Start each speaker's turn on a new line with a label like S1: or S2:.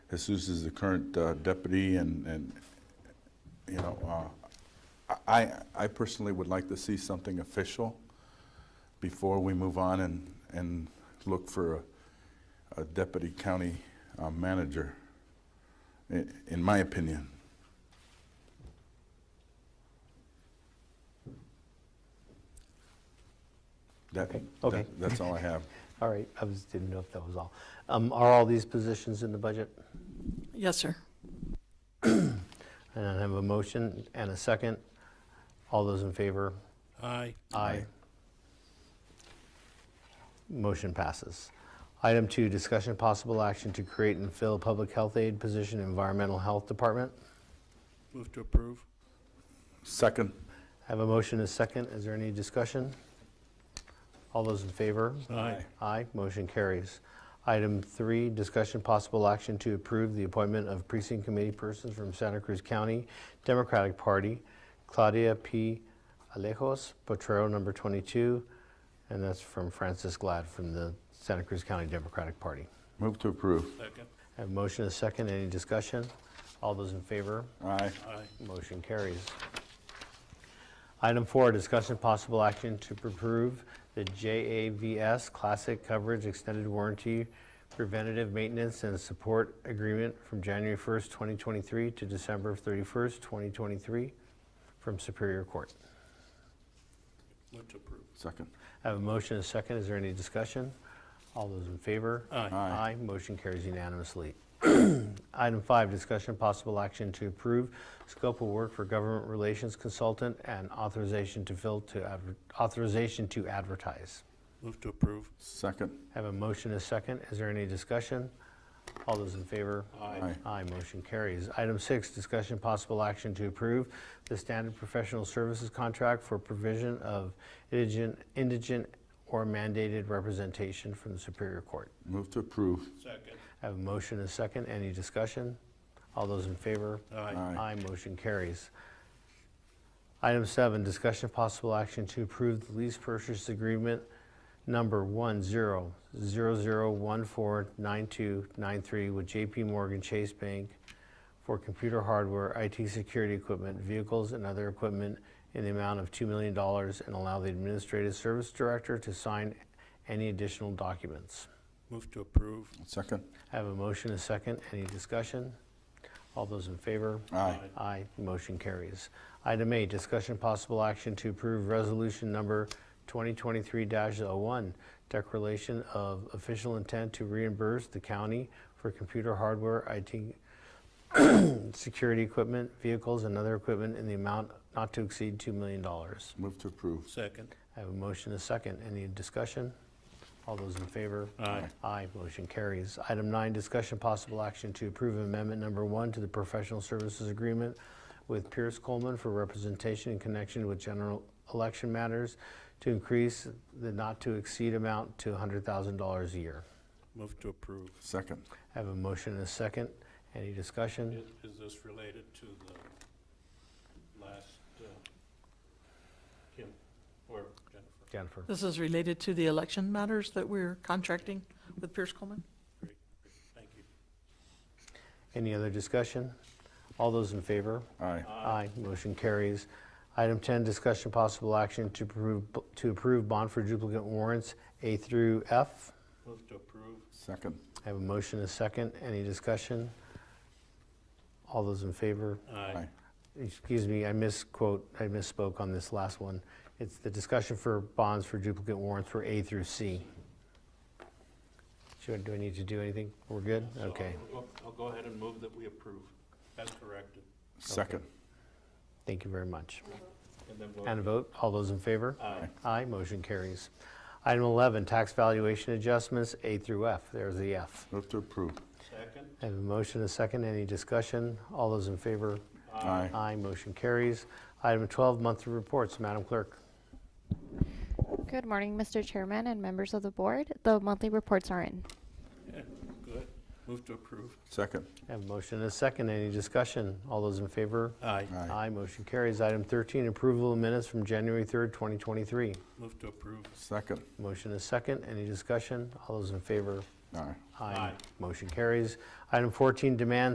S1: Jesus is the current uh, deputy and, and, you know, uh, I, I personally would like to see something official before we move on and, and look for a, a deputy county uh, manager, i- in my opinion. That,
S2: Okay, okay.
S1: that- that's all I have.
S2: All right, I was, didn't know if that was all. Um, Are all these positions in the budget?
S3: Yes, sir.
S2: And I have a motion and a second. All those in favor?
S4: Aye.
S2: Aye. Motion passes. Item two, discussion possible action to create and fill public health aid position, in environmental health department.
S4: Move to approve.
S1: Second,
S2: I have a motion and a second. Is there any discussion? All those in favor?
S4: Aye.
S2: Aye, motion carries. Item three, discussion possible action to approve the appointment of precinct committee persons from Santa Cruz County Democratic Party, Claudia P. Alejos, Potrero number 22, and that's from Francis Glad from the Santa Cruz County Democratic Party.
S1: move to approve.
S4: Second.
S2: I have a motion and a second. Any discussion? All those in favor?
S1: Aye.
S4: Aye.
S2: Motion carries. Item four, discussion possible action to approve the JAVS Classic Coverage Extended Warranty Preventative Maintenance and Support Agreement from January 1st, 2023 to December 31st, 2023 from Superior Court.
S4: Move to approve.
S1: Second.
S2: I have a motion and a second. Is there any discussion? All those in favor?
S4: Aye.
S1: Aye.
S2: Motion carries unanimously. Item five, discussion possible action to approve scope of work for government relations consultant and authorization to fill to, adver- authorization to advertise.
S4: Move to approve.
S1: Second.
S2: Have a motion and a second. Is there any discussion? All those in favor?
S1: Aye.
S2: Aye, motion carries. Item six, discussion possible action to approve the standard professional services contract for provision of indigent, indigent or mandated representation from the Superior Court.
S1: Move to approve.
S4: Second.
S2: I have a motion and a second. Any discussion? All those in favor?
S4: Aye.
S1: Aye.
S2: Aye, motion carries. Item seven, discussion of possible action to approve the lease purchase agreement number one zero zero zero one four nine two nine three with JP Morgan Chase Bank for computer hardware, IT security equipment, vehicles, and other equipment in the amount of $2 million and allow the Administrative Service Director to sign any additional documents.
S4: Move to approve.
S1: Second.
S2: I have a motion, and a second. Any discussion? All those in favor?
S1: Aye.
S2: Aye, motion carries. Item eight, discussion possible action to approve resolution number 2023-01, declaration of official intent to reimburse the county for computer hardware, IT, security equipment, vehicles, and other equipment in the amount not to exceed $2 million. I
S1: Move to approve.
S4: Second.
S2: have a motion, and a second. Any discussion? All those in favor?
S4: Aye.
S2: Aye, motion carries. Item nine, discussion possible action to approve amendment number one to the professional services agreement with Pierce Coleman for representation in connection with general election matters to increase the not-to-exceed amount to $100,000 a year.
S4: Move to approve.
S1: Second.
S2: I Have a motion and a second. Any
S4: I-
S2: discussion?
S4: Is this related to the last, uh, Kim or Jennifer?
S2: Jennifer?
S3: This is related to the election matters that we're contracting with Pierce Coleman?
S4: Thank you.
S2: Any other discussion? All those in favor?
S1: Aye.
S2: Aye, motion carries. Item 10, discussion possible action to approve, to approve bond for duplicate warrants A through F.
S4: Move to approve.
S1: Second.
S2: I have a motion and a second. Any discussion? All those in favor?
S1: Aye.
S2: Excuse me, I misquote, I misspoke on this last one. It's the discussion for bonds for duplicate warrants for A through C. Should, do I need to do anything? We're good?
S4: So
S2: Okay,
S4: I'll go- I'll go ahead and move that we approve as corrected.
S1: Second.
S2: thank you very much.
S4: And then we'll.
S2: And a vote, all those in favor?
S4: Aye.
S2: Aye, motion carries. Item 11, tax valuation adjustments, A through F. There's the F.
S1: Move to approve.
S4: Second.
S2: I have a motion and a second. Any discussion? All those in favor?
S1: Aye.
S2: Aye, motion carries. Item 12, monthly reports, Madam Clerk.
S5: Good morning, Mr. Chairman and members of the board. The monthly reports are in.
S4: Good. Move to approve.
S1: Second.
S2: I have a motion and a second, any discussion? All those in favor?
S4: Aye.
S1: Aye.
S2: motion carries. Item 13, approval of minutes from January 3rd, 2023.
S4: Move to approve.
S1: Second.
S2: Motion and a second, any discussion? All those in favor?
S1: All right.
S4: Aye.
S2: Motion carries. Item 14, demand